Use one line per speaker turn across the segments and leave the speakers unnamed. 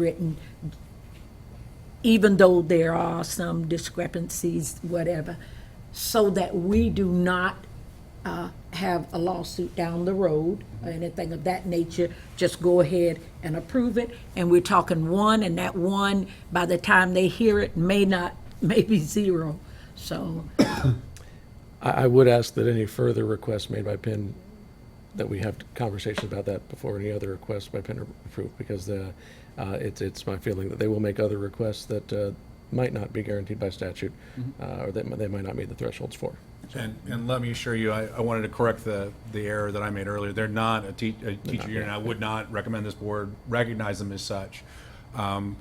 written, even though there are some discrepancies, whatever, so that we do not uh, have a lawsuit down the road or anything of that nature, just go ahead and approve it. And we're talking one, and that one, by the time they hear it, may not, may be zero. So,
I, I would ask that any further requests made by Penn, that we have conversations about that before any other requests by Penn are approved, because the, uh, it's, it's my feeling that they will make other requests that, uh, might not be guaranteed by statute,
Mm-hmm.
uh, or that they might not meet the thresholds for.
And, and let me assure you, I, I wanted to correct the, the error that I made earlier. They're not a tea, a teacher union. I would not recommend this board recognize them as such. Um,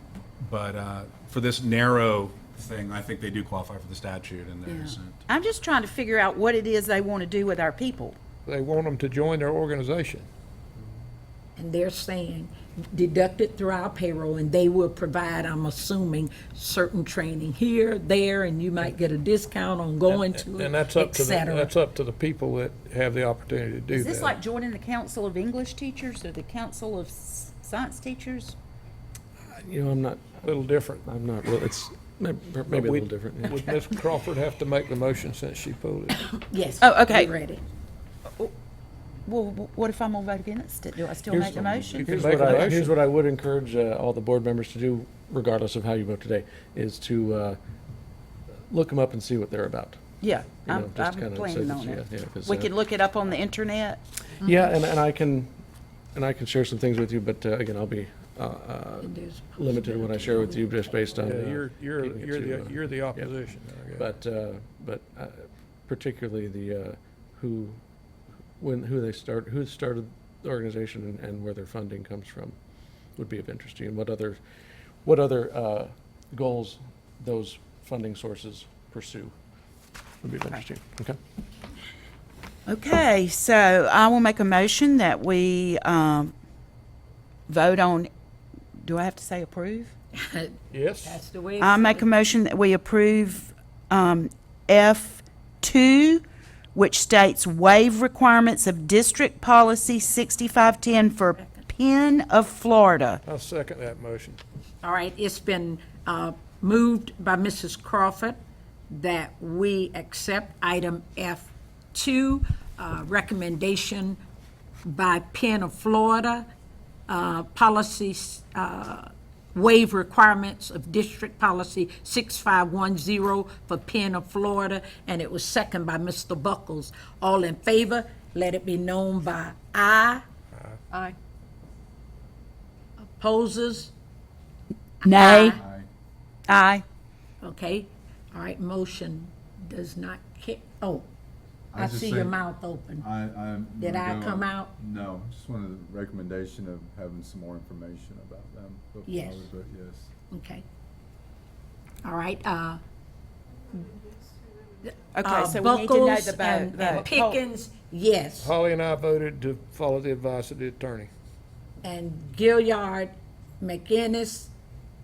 But, uh, for this narrow thing, I think they do qualify for the statute and
Yeah.
there's.
I'm just trying to figure out what it is they want to do with our people.
They want them to join their organization.
and they're saying deducted through our payroll, and they will provide, I'm assuming, certain training here, there, and you might get a discount on going to
And
it,
that's up
et
to, the
cetera.
that's up to the people that have the opportunity to do
Is this like
that.
joining the Council of English Teachers or the Council of S- Science Teachers?
You know, I'm not,
a Little different.
I'm not, real- it's may- maybe a little different. yeah.
Would Ms. Crawford have to make the motion since she pulled it?
Yes.
Oh, okay.
we read it.
Well, wh- what if I'm gonna vote against it? Do I still
Here's-
make the
you
motion?
can
Here's
make
what
a
I,
motion.
here's what I would encourage uh, all the board members to do, regardless of how you vote today, is to uh, look them up and see what they're about.
Yeah,
you know,
I'm,
just
I'm
kinda say
planning
that
on
you-
it.
yeah, 'cause,
We
uh,
could look it up on the internet.
Yeah, and, and I can, and I can share some things with you, but uh, again, I'll be uh, uh,
And there's-
limited in what I share with you just based on.
Yeah,
uh,
You're, you're,
keeping it
you're
to,
the,
uh,
you're the
yeah.
opposition. I guess.
But, uh, but uh, particularly the, uh, who, when, who they start, who started the organization and- and where their funding comes from would be of interest to you, and what other, what other uh, goals those funding sources pursue would be of interest to you, okay?
Okay, so I will make a motion that we, um, vote on, do I have to say approve?
Yes,
That's the way.
I make a motion that we approve um, F2, which states waive requirements of District Policy 6510 for Penn of Florida.
I second that motion.
All right, it's been uh, moved by Mrs. Crawford that we accept item F2, uh, recommendation by Penn of Florida, uh, policies, uh, waive requirements of District Policy 6510 for Penn of Florida, and it was second by Mr. Buckles. All in favor, let it be known by aye. Aye. Opposes?
Nay. Aye.
Okay, all right, motion does not ca- oh,
I
I
just
see your
say-
mouth open.
I, I'm.
Did
gonna
I
go-
come out?
No, just wanted a recommendation of having some more information about them. before I
Yes.
would vote Yes.
Okay. All right, uh,
Okay,
uh,
so we need to know
Buckles
the
and
vote.
and Pickens, yes,
Holly and I voted to follow the advice of the attorney.
and Gilliard, McInnes,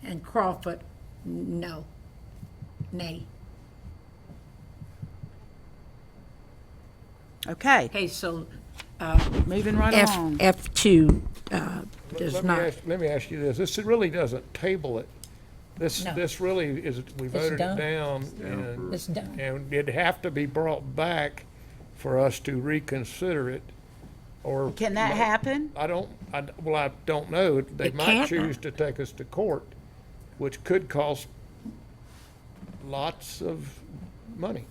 and Crawford, n- no, nay.
Okay,
Okay, so
moving right
F,
along.
F2, uh, does
Let me
not,
ask, let me ask you this, this really doesn't table it. This,
No.
this really is, we voted
done.
it down and.
it's done.
And it'd have to be brought back for us to reconsider it, or.
Can that happen?
I don't, I, well, I don't know. They
It
might
can't.
choose to take us to court, which could cost lots of money.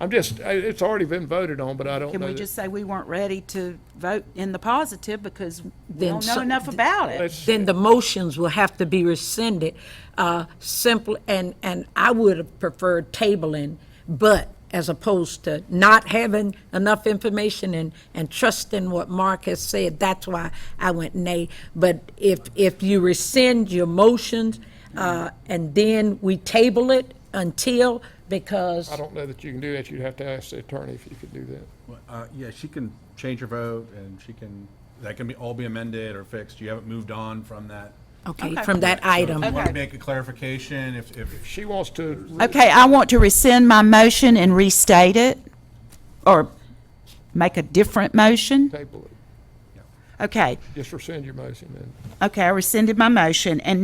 I'm just, I- it's already been voted on, but I don't know.
Can we
that-
just say we weren't ready to vote in the positive because we
Then
don't know
some-
enough about it?
Let's-
then the motions will have to be rescinded, uh, simply, and, and I would have preferred tabling, but as opposed to not having enough information and, and trusting what Mark has said, that's why I went nay. But if, if you rescind your motions, uh, and then we table it until, because,
I don't know that you can do that. You'd have to ask the attorney if you could do that.
Uh, yeah, she can change her vote and she can, that can be, all be amended or fixed. You haven't moved on from that.
okay,
Okay.
from that item.
So if you want
Okay.
to make a clarification, if, if,
She wants to
Okay, I want to rescind my motion and restate it, or make a different motion.
table it.
Okay,
Just rescind your motion then.
okay, I rescinded my motion, and